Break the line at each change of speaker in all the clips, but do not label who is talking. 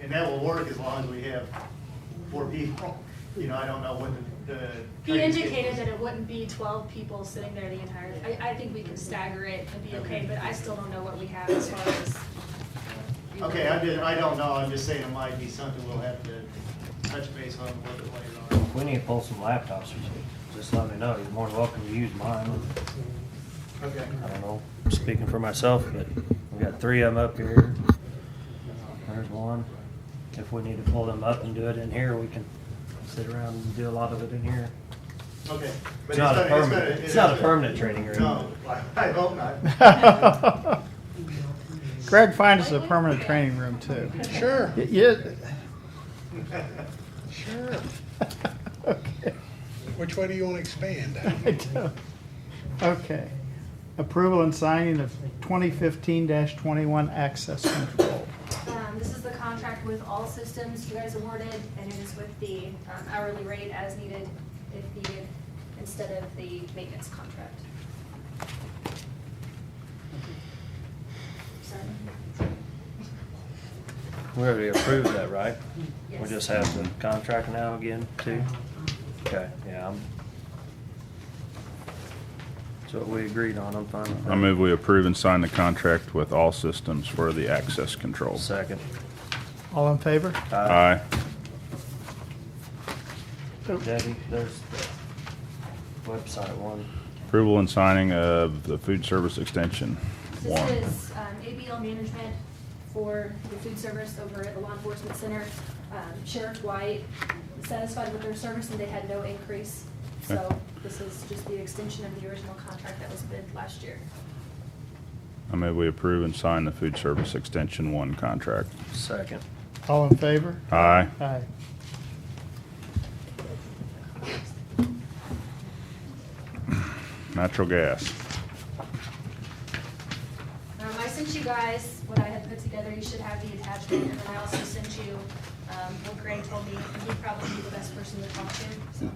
and that will work as long as we have four people. You know, I don't know what the, the.
He
training schedule
indicated
is.
that it wouldn't be twelve people sitting there the entire, I, I think we can stagger it and be okay, but I still don't know what we have as far as.
Okay, I did, I don't know, I'm just saying it might be something we'll have to touch base on a little bit later on.
We need to pull some laptops or something. Just let me know. You're more than welcome to use mine.
Okay.
I don't know, I'm speaking for myself, but we got three of them up here. There's one. If we need to pull them up and do it in here, we can sit around and do a lot of it in here.
Okay. But
It's not
gonna-
a
gonna-
permanent,
it
it's not a
is
permanent training
No,
room.
I I hope not.
Greg, find us a permanent training room too.
Sure.
Y- Yeah. Sure. Okay.
Which way do you want to expand?
I don't- Okay. Approval and signing of twenty fifteen twenty-one access control.
Um, this is the contract with all systems you guys awarded, and it is with the um, hourly rate as needed if needed, instead of the maintenance contract. Sorry.
We already approved that, right? We
Yes.
just have the contract now again, too? Okay, yeah. I'm- That's what we agreed on, I'm fine with that.
I move we approve and sign the contract with all systems for the access control.
Second.
All in favor?
Aye.
Debbie, there's the website one.
Approval and signing of the food service extension warrant.
This is um, ABL management for the food service over at the law enforcement center. Um, Sheriff White satisfied with their service and they had no increase. So
Okay.
this is just the extension of the original contract that was bid last year.
I move we approve and sign the food service extension one contract.
Second.
All in favor?
Aye.
Aye.
Natural gas.
Um, I sent you guys what I had put together, you should have the attachment, and then I also sent you, um, what Greg told me, and he'd probably be the best person to talk to, so.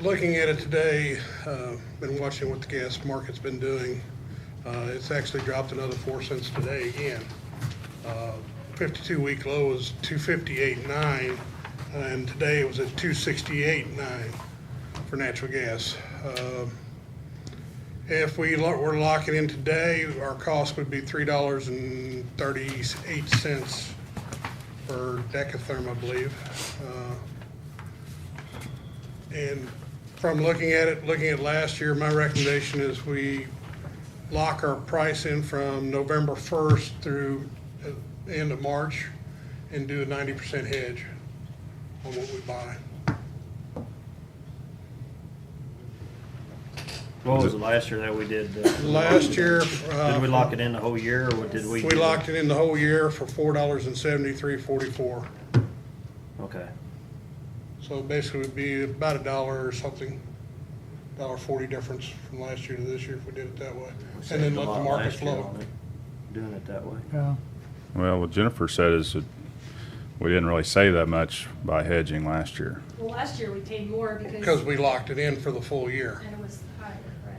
Looking at it today, uh, been watching what the gas market's been doing. Uh, It's actually dropped another four cents today again. Uh, Fifty-two week low is two fifty-eight nine, and today it was at two sixty-eight nine for natural gas. Um, If we lo- were locking in today, our cost would be three dollars and thirty-eight cents per decatherm, I believe. Uh, and from looking at it, looking at last year, my recommendation is we lock our price in from November 1st through uh, end of March and do a 90% hedge on what we buy.
What was the last year that we did? the-
Last year, uh,
Did we lock it in the whole year or what did we?
We
do?
locked it in the whole year for $4.7344.
Okay.
So basically it'd be about a dollar or something, dollar 40 difference from last year to this year if we did it that way.
We
And
saved
then
a
let
lot
the market
last year
flow.
on it, Doing it that way.
Yeah.
Well, what Jennifer said is that we didn't really save that much by hedging last year.
Well, last year we paid more
Because we locked it in for the full year.
And it was higher, right?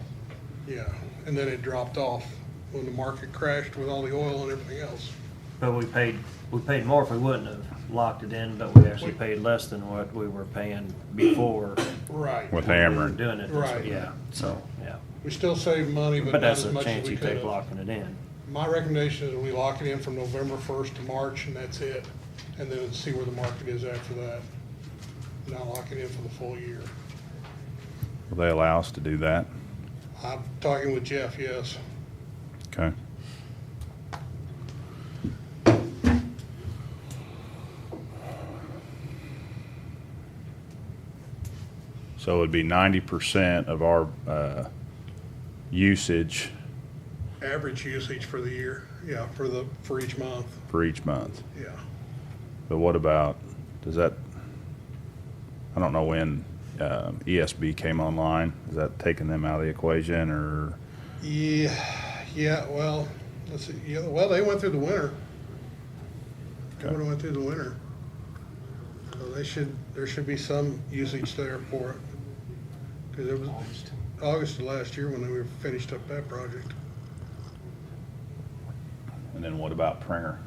Yeah, and then it dropped off when the market crashed with all the oil and everything else.
But we paid, we paid more if we wouldn't have locked it in, but we actually paid less than what we were paying before.
Right.
With
we were
hammering.
Doing it this
Right.
way, yeah, so, yeah.
We still save money, but
But
not
that's
as
a
much as
chance
we
you
could
take
have.
locking it in.
My recommendation is we lock it in from November first to March, and that's it. And then see where the market is after that. Not lock it in for the full year.
Will they allow us to do that?
I'm talking with Jeff, yes.
Okay. So it'd be ninety percent of our, uh, usage
Average usage for the year, yeah, for the, for each month,
for each month.
yeah.
But what about, does that, I don't know when, um, ESB came online. Is that taking them out of the equation or,
Yeah, yeah, well, let's see, yeah, well, they went through the winter. They
Okay.
would've went through the winter. So they should, there should be some usage there for it. Cause it was August of last year when they were finished up that project.
and then what about printer?